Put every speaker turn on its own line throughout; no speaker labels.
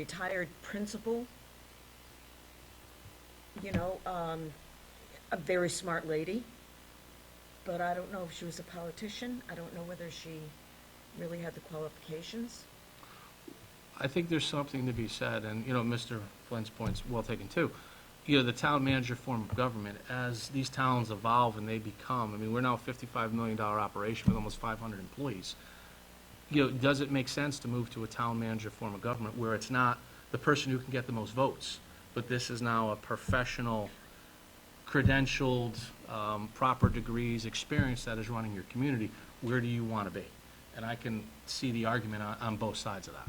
retired principal, you know, um, a very smart lady, but I don't know if she was a politician. I don't know whether she really had the qualifications.
I think there's something to be said, and, you know, Mr. Flynn's point's well taken too. You know, the town manager form of government, as these towns evolve and they become, I mean, we're now a fifty-five million dollar operation with almost five hundred employees. You know, does it make sense to move to a town manager form of government where it's not the person who can get the most votes? But this is now a professional, credentialed, um, proper degrees, experience that is running your community. Where do you want to be? And I can see the argument on, on both sides of that.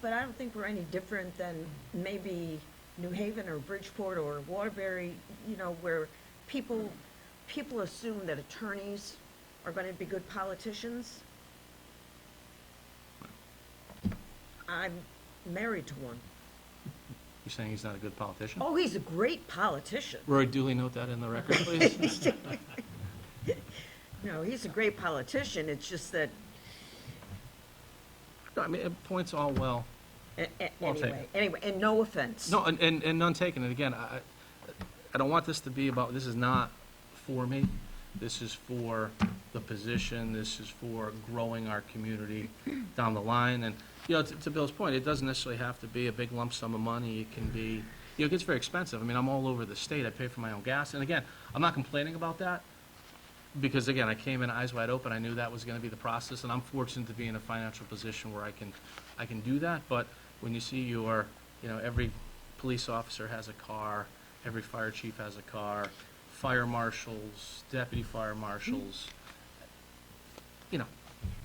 But I don't think we're any different than maybe New Haven or Bridgeport or Waterbury, you know, where people, people assume that attorneys are gonna be good politicians. I'm married to one.
You're saying he's not a good politician?
Oh, he's a great politician.
Roy Dooley, note that in the record, please.
No, he's a great politician, it's just that,
No, I mean, it points all well.
a- a-
Well, I'll take
anyway,
it.
anyway, and no offense.
No, and, and and none taken, and again, I, I- I don't want this to be about, this is not for me. This is for the position, this is for growing our community down the line, and, you know, to- to Bill's point, it doesn't necessarily have to be a big lump sum of money, it can be, you know, it gets very expensive. I mean, I'm all over the state, I pay for my own gas, and again, I'm not complaining about that, because again, I came in eyes wide open, I knew that was gonna be the process, and I'm fortunate to be in a financial position where I can, I can do that, but when you see your, you know, every police officer has a car, every fire chief has a car, fire marshals, deputy fire marshals, you know,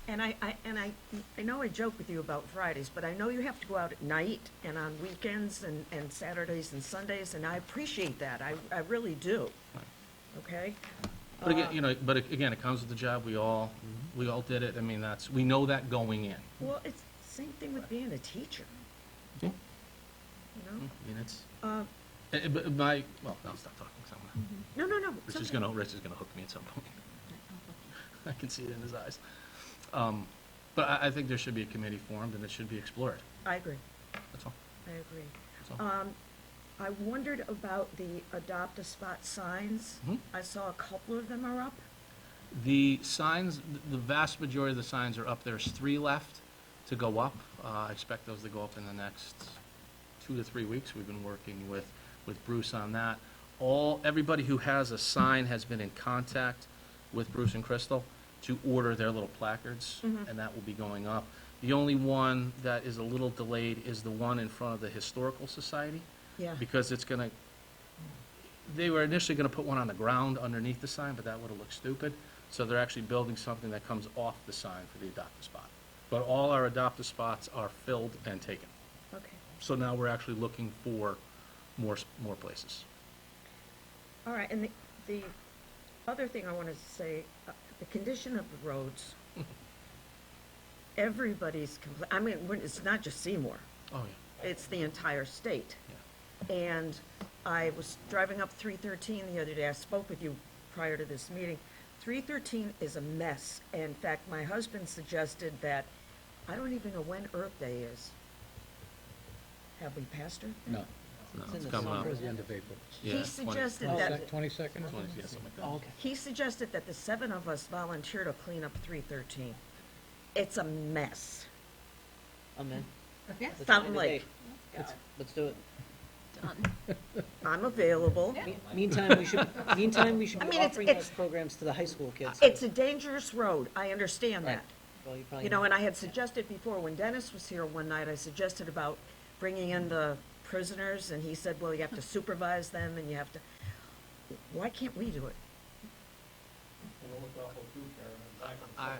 And I, I, and I, I know I joke with you about Fridays, but I know you have to go out at night and on weekends and, and Saturdays and Sundays, and I appreciate that, I, I really do. Okay?
but again, you know, but again, it comes with the job, we all, we all did it, I mean, that's, we know that going in.
Well, it's same thing with being a teacher,
Yeah.
you know?
I mean, it's,
Uh,
eh, eh, but my, well, no, stop talking, 'cause I'm gonna-
no, no, no.
Rich Mm-hmm. is
something-
gonna, Rich is gonna hook me at some point. I can see it in his eyes. Um, But I, I think there should be a committee formed, and it should be explored,
I agree,
that's all,
I agree.
that's all.
Um, I wondered about the adopt a spot signs.
Mhm.
I saw a couple of them are up.
The signs, the vast majority of the signs are up. There's three left to go up. Uh, I expect those to go up in the next two to three weeks. We've been working with, with Bruce on that. All, everybody who has a sign has been in contact with Bruce and Crystal to order their little placards, and that will be going up. The only one that is a little delayed is the one in front of the Historical Society
Yeah,
because it's gonna, they were initially gonna put one on the ground underneath the sign, but that would've looked stupid. So they're actually building something that comes off the sign for the adoptive spot. But all our adoptive spots are filled and taken.
okay.
So now we're actually looking for more, s- more places.
All right, and the, the other thing I wanted to say, uh, the condition of the roads. Everybody's compla, I mean, when- it's not just Seymour,
Oh, yeah,
it's the entire state.
yeah.
And I was driving up three thirteen the other day, I spoke with you prior to this meeting. Three thirteen is a mess, in fact, my husband suggested that, I don't even know when Earth Day is. Have we passed Earth Day?
No.
No,
It's in
it's
the
coming up.
summer.
Towards the end of April.
Yeah,
He
20
suggested
Oh,
that.
sec- 22nd?
Twenty, yeah, something like that.
Oh, okay.
He suggested that the seven of us volunteer to clean up three thirteen. It's a mess.
I'm in. Let's find
Fountain
a
Lake,
date. Let's- Let's do it.
I'm available.
Me- Meantime, we should, meantime, we should
I
be
mean, it's-
offering
it's-
those programs to the high school kids.
It's a dangerous road, I understand
Right.
that.
Well, you probably
You know, and
know.
I had suggested before, when Dennis was here one night, I suggested about bringing in the prisoners, and he said, well, you have to supervise them, and you have to, why can't we do it?
I-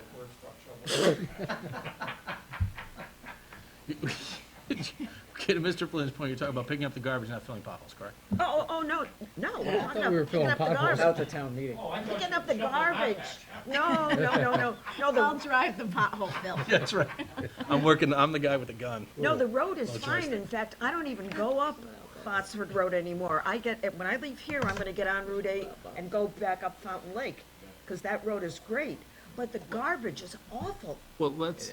Okay, to Mr. Flynn's point, you're talking about picking up the garbage, not filling potholes, correct?
Oh, oh, oh, no, no, we're
I
talking
thought we were
about picking
filling
up the
potholes
garbage.
out the town meeting.
Picking up the garbage. No, no, no, no, no, the
I'll drive the pothole fill.
Yeah, that's right. I'm working, I'm the guy with the gun.
No, the road is
Oh, it's
fine. In fact, I don't even go up Botsford Road anymore. I get, when I leave here, I'm gonna get on Route eight and go back up Fountain Lake, because that road is great. But the garbage is awful.
Well, let's,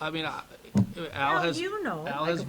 I mean, I- Al
Al,
has,
you know.
Al has